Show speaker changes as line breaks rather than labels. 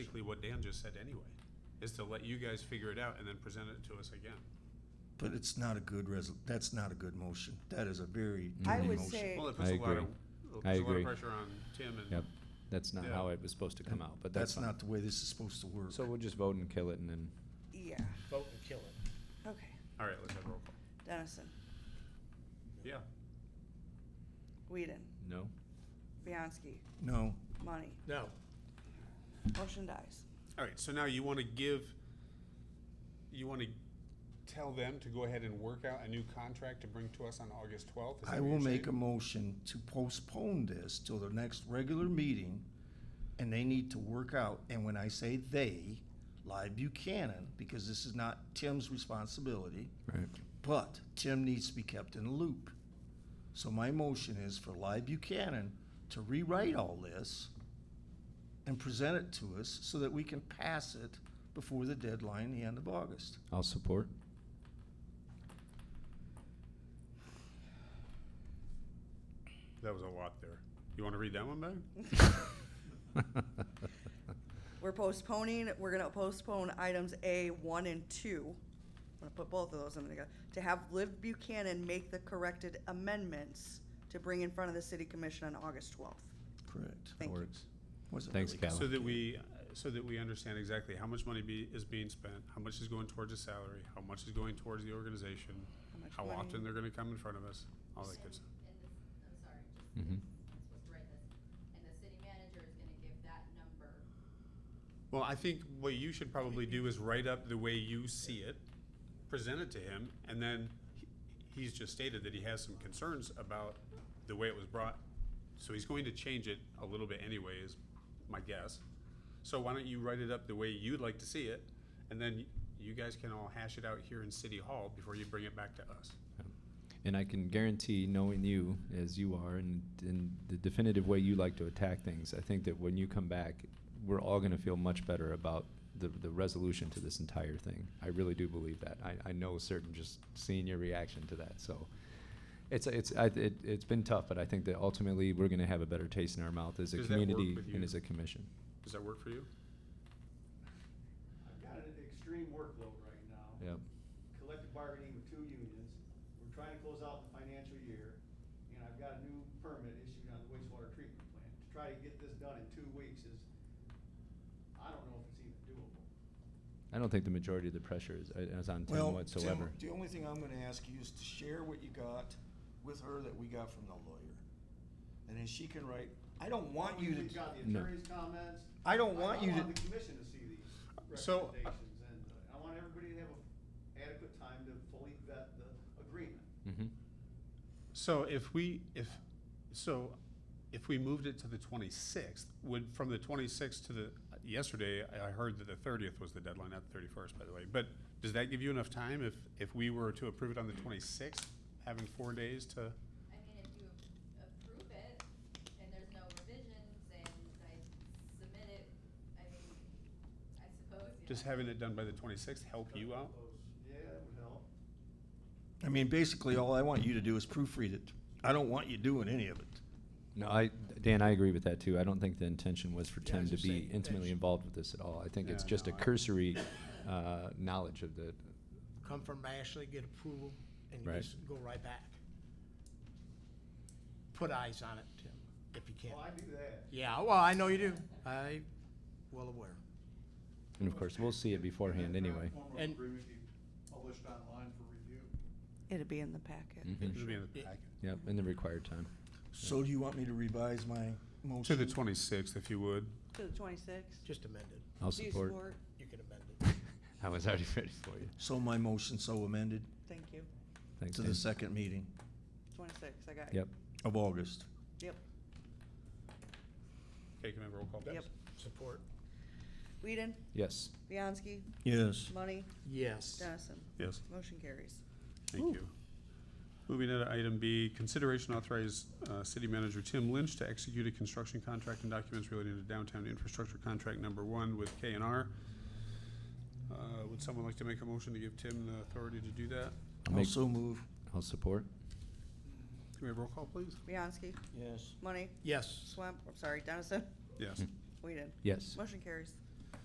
what Dan just said anyway, is to let you guys figure it out and then present it to us again.
But it's not a good resol, that's not a good motion. That is a very
Mm-hmm.
I
dirty
would
motion.
say,
Well, it puts a lot of,
agree.
it
I
puts a lot
agree.
of pressure on Tim
Yep,
and,
that's not
Yeah.
how it was supposed to come out, but
That's
that's fine.
not the way this is supposed to work.
So we'll just vote and kill it and then,
yeah,
vote and kill it.
okay.
all right, let's have roll call.
Dennison,
Yeah,
Whedon,
no?
Bianski,
No,
Money,
No,
motion dies.
all right, so now you wanna give, you wanna tell them to go ahead and work out a new contract to bring to us on August twelfth?
I will make a motion to postpone this till the next regular meeting, and they need to work out, and when I say they, Live Buchanan, because this is not Tim's responsibility,
Right.
but Tim needs to be kept in the loop. So my motion is for Live Buchanan to rewrite all this and present it to us so that we can pass it before the deadline, the end of August.
I'll support.
That was a lot there. You wanna read that one back?
We're postponing, we're gonna postpone items A one and two. I'm gonna put both of those in together, to have Liv Buchanan make the corrected amendments to bring in front of the city commission on August twelfth.
Correct.
Thank you.
Works.
Wasn't
Thanks,
really-
Cal.
So that we, so that we understand exactly how much money be, is being spent, how much is going towards the salary, how much is going towards the organization,
How much
how
money?
often they're gonna come in front of us, all that good stuff.
And this, I'm sorry, just,
Mhm.
I'm supposed to write this, and the city manager is gonna give that number.
Well, I think what you should probably do is write up the way you see it, present it to him, and then he- he's just stated that he has some concerns about the way it was brought. So he's going to change it a little bit anyway, is my guess. So why don't you write it up the way you'd like to see it, and then you guys can all hash it out here in City Hall before you bring it back to us.
And I can guarantee, knowing you as you are and in the definitive way you like to attack things, I think that when you come back, we're all going to feel much better about the, the resolution to this entire thing. I really do believe that. I, I know certain just seeing your reaction to that. So it's it's I, it, it's been tough, but I think that ultimately we're going to have a better taste in our mouth as a
Does that work
community
with
and
you?
as a commission.
Does that work for you?
I've got an extreme workload right now.
Yep.
Collective bargaining with two unions. We're trying to close out the financial year, and I've got a new permit issued on the wastewater treatment plant. To try to get this done in two weeks is, I don't know if it's even doable.
I don't think the majority of the pressure is, is on Tim
Well,
whatsoever.
Tim, the only thing I'm gonna ask you is to share what you got with her that we got from the lawyer. And then she can write, I don't want you
We've
to,
got the
No.
attorney's comments.
I don't want you
I
to,
want the commission to see these
So-
recommendations, and uh, I want everybody to have a adequate time to fully vet the agreement.
hmm
So if we, if, so if we moved it to the twenty-sixth, would, from the twenty-sixth to the, yesterday, I- I heard that the thirtieth was the deadline, not the thirty-first, by the way. But does that give you enough time if, if we were to approve it on the twenty-sixth, having four days to?
I mean, if you approve it and there's no revisions and I submit it, I mean, I suppose, you
Just
know.
having it done by the twenty-sixth help you out?
Yeah, that would help.
I mean, basically, all I want you to do is proofread it. I don't want you doing any of it.
No, I, Dan, I agree with that too. I don't think the intention was for
Yeah, I
Tim
was
to
just
be
saying,
intimately
that's-
involved with this at all. I think it's
Yeah,
just a
no, I-
cursory, uh, knowledge of the,
come from Ashley, get approval, and
Right.
just go right back. Put eyes on it, Tim, if you can.
Well, I do that.
Yeah, well, I know you do. I, well aware.
and of course, we'll see it beforehand anyway.
And-
agreement be published online for review.
It'll be in the packet.
It
Mhm.
should be in the
Yeah.
packet.
Yep, in the required time.
So do you want me to revise my
To
motion?
the twenty-sixth, if you would.
To the twenty-sixth.
Just amended.
I'll support.
You can amend it.
I was already ready for you.
So my motion so amended
Thank you.
Thanks,
to the
Dan.
second meeting
Twenty-sixth, I got it.
Yep.
of August.
Yep,
Okay, can I have a roll call?
yep.
Support.
Whedon,
Yes.
Bianski,
Yes.
Money,
Yes.
Dennison.
Yes.
Motion carries.
Thank you. Moving on to item B, consideration authorize uh, City Manager Tim Lynch to execute a construction contract and documents relating to downtown infrastructure contract number one with K and R. Uh, Would someone like to make a motion to give Tim the authority to do that?
I'll make,
Also move.
I'll support.
Can we have roll call, please?
Bianski,
Yes.
Money,
Yes.
Swam, I'm sorry, Dennison,
Yes.
Whedon.
Yes.
Motion carries.